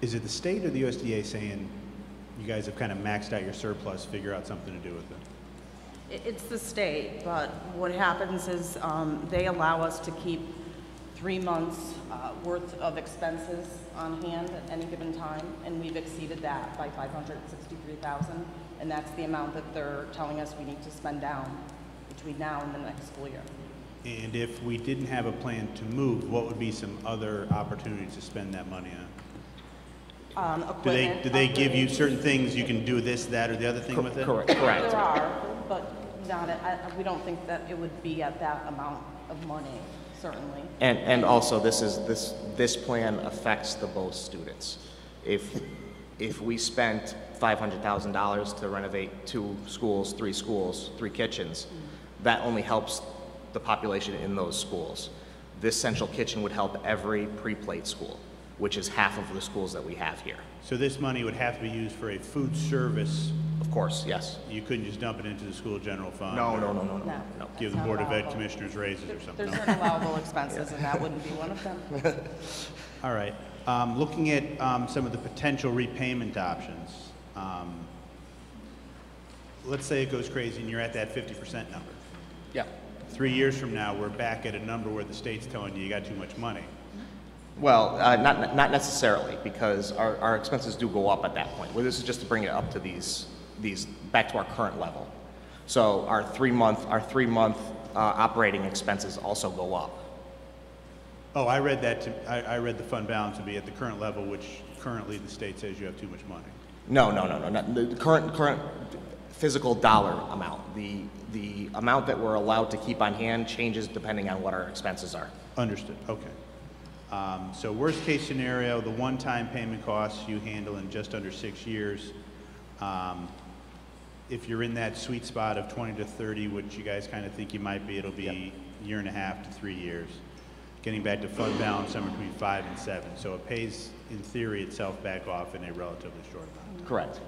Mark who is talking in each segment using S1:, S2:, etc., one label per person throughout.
S1: Is it the state or the USDA saying, you guys have kind of maxed out your surplus, figure out something to do with it?
S2: I- It's the state, but what happens is um, they allow us to keep three months' uh, worth of expenses on hand at any given time, and we've exceeded that by 563,000, and that's the amount that they're telling us we need to spend down between now and the next school year.
S1: And if we didn't have a plan to move, what would be some other opportunities to spend that money on?
S2: Um,
S1: Do they,
S2: equipment,
S1: do they give you
S2: upgrades.
S1: certain things, you can do this, that, or the other thing with it?
S3: Correct,
S2: There
S3: correct.
S2: are, but not, at- I- we don't think that it would be at that amount of money, certainly.
S3: And, and also, this is, this, this plan affects the both students. If, if we spent $500,000 to renovate two schools, three schools, three kitchens, that only helps the population in those schools. This central kitchen would help every pre-plate school, which is half of the schools that we have here.
S1: So this money would have to be used for a food service,
S3: Of course, yes.
S1: you couldn't just dump it into the school general fund?
S3: No,
S1: or
S3: no, no, no, no,
S2: No.
S3: no.
S1: Give the
S2: That's
S1: Board
S2: not
S1: of Ed
S2: allowable.
S1: Commissioners raises or something?
S2: There's
S1: No.
S2: certain allowable expenses, and that wouldn't be one of them.
S1: All right. Um, Looking at um, some of the potential repayment options, um, let's say it goes crazy and you're at that 50% number.
S3: Yeah.
S1: Three years from now, we're back at a number where the state's telling you you got too much money.
S3: Well, uh, not, not necessarily, because our, our expenses do go up at that point. Well, this is just to bring it up to these, these, back to our current level. So our three-month, our three-month uh, operating expenses also go up.
S1: Oh, I read that, to- I I read the fund balance would be at the current level, which currently the state says you have too much money.
S3: No, no, no, no, not, the current, current physical dollar amount. The, the amount that we're allowed to keep on hand changes depending on what our expenses are.
S1: Understood, okay. Um, So worst-case scenario, the one-time payment costs you handle in just under six years. Um, If you're in that sweet spot of 20 to 30, which you guys kind of think you might be, it'll be year and a half to three years. Getting back to fund balance somewhere between five and seven. So it pays, in theory, itself back off in a relatively short amount.
S3: Correct.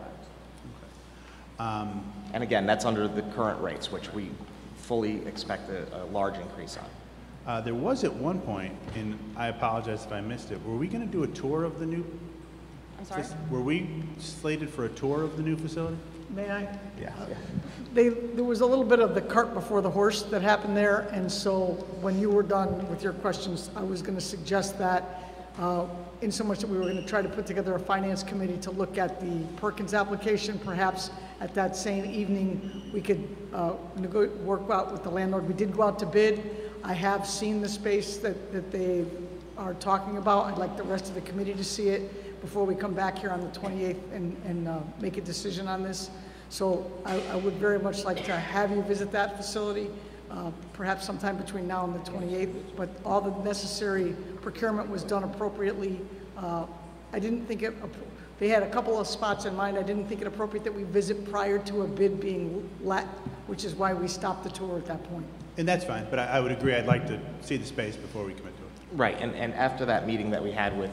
S3: And again, that's under the current rates, which we fully expect a, a large increase on.
S1: Uh, There was at one point, and I apologize if I missed it, were we going to do a tour of the new
S2: I'm sorry?
S1: Were we slated for a tour of the new facility?
S4: May I?
S3: Yeah.
S4: They, there was a little bit of the cart before the horse that happened there, and so when you were done with your questions, I was going to suggest that, uh, in so much that we were going to try to put together a finance committee to look at the Perkins application, perhaps at that same evening, we could uh, nego- work out with the landlord. We did go out to bid. I have seen the space that, that they are talking about. I'd like the rest of the committee to see it before we come back here on the 28th and, and uh, make a decision on this. So I, I would very much like to have you visit that facility, uh, perhaps sometime between now and the 28th. But all the necessary procurement was done appropriately. Uh, I didn't think it, they had a couple of spots in mind. I didn't think it appropriate that we visit prior to a bid being let, which is why we stopped the tour at that point.
S1: And that's fine, but I, I would agree, I'd like to see the space before we commit to it.
S3: Right, and, and after that meeting that we had with,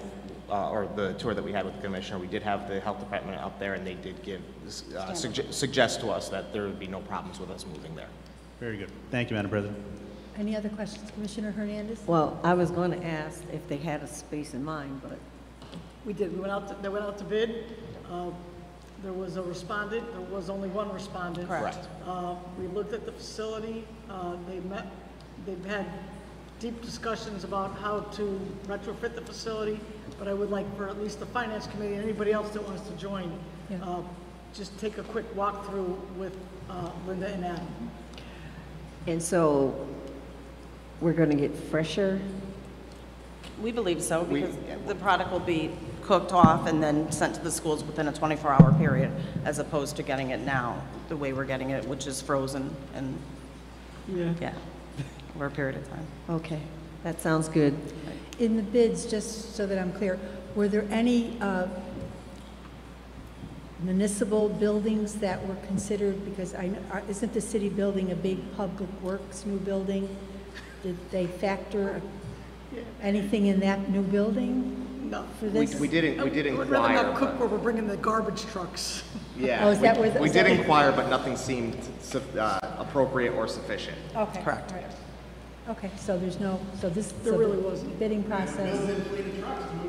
S3: uh, or the tour that we had with the commissioner, we did have the health department up there, and they did give, uh, sugge- suggest to us that there would be no problems with us moving there.
S1: Very good. Thank you, Madam President.
S5: Any other questions, Commissioner Hernandez?
S6: Well, I was going to ask if they had a space in mind, but
S4: We did, we went out, to- they went out to bid. Uh, There was a respondent, there was only one respondent.
S3: Correct. Correct.
S4: Uh, We looked at the facility, Uh, they met, they've had deep discussions about how to retrofit the facility, but I would like for at least the finance committee and anybody else that wants to join,
S5: Yeah.
S4: uh, just take a quick walkthrough with uh, Linda and Adam.
S6: and so we're going to get fresher.
S2: We believe so, because the product will be cooked off and then sent to the schools within a 24-hour period, as opposed to getting it now, the way we're getting it, which is frozen and, yeah, over a period of time.
S6: Okay, that sounds good.
S5: In the bids, just so that I'm clear, were there any uh, municipal buildings that were considered? Because I, kn- are- isn't the city building a big public works new building? Did they factor anything in that new building
S4: No.
S5: for
S3: We,
S5: this?
S3: we didn't, we did
S4: We'd rather
S3: inquire,
S4: not cook
S3: but,
S4: where we're bringing the garbage trucks.
S3: yeah.
S5: Oh, is
S3: we-
S5: that where the-
S3: We
S5: is
S3: did
S5: that-
S3: inquire, but nothing seemed suf- uh, appropriate or sufficient.
S5: Okay.
S2: Correct.
S5: all right. Okay, so there's no, so this.
S4: There
S5: so
S4: really
S5: the
S4: wasn't.
S5: Bidding process.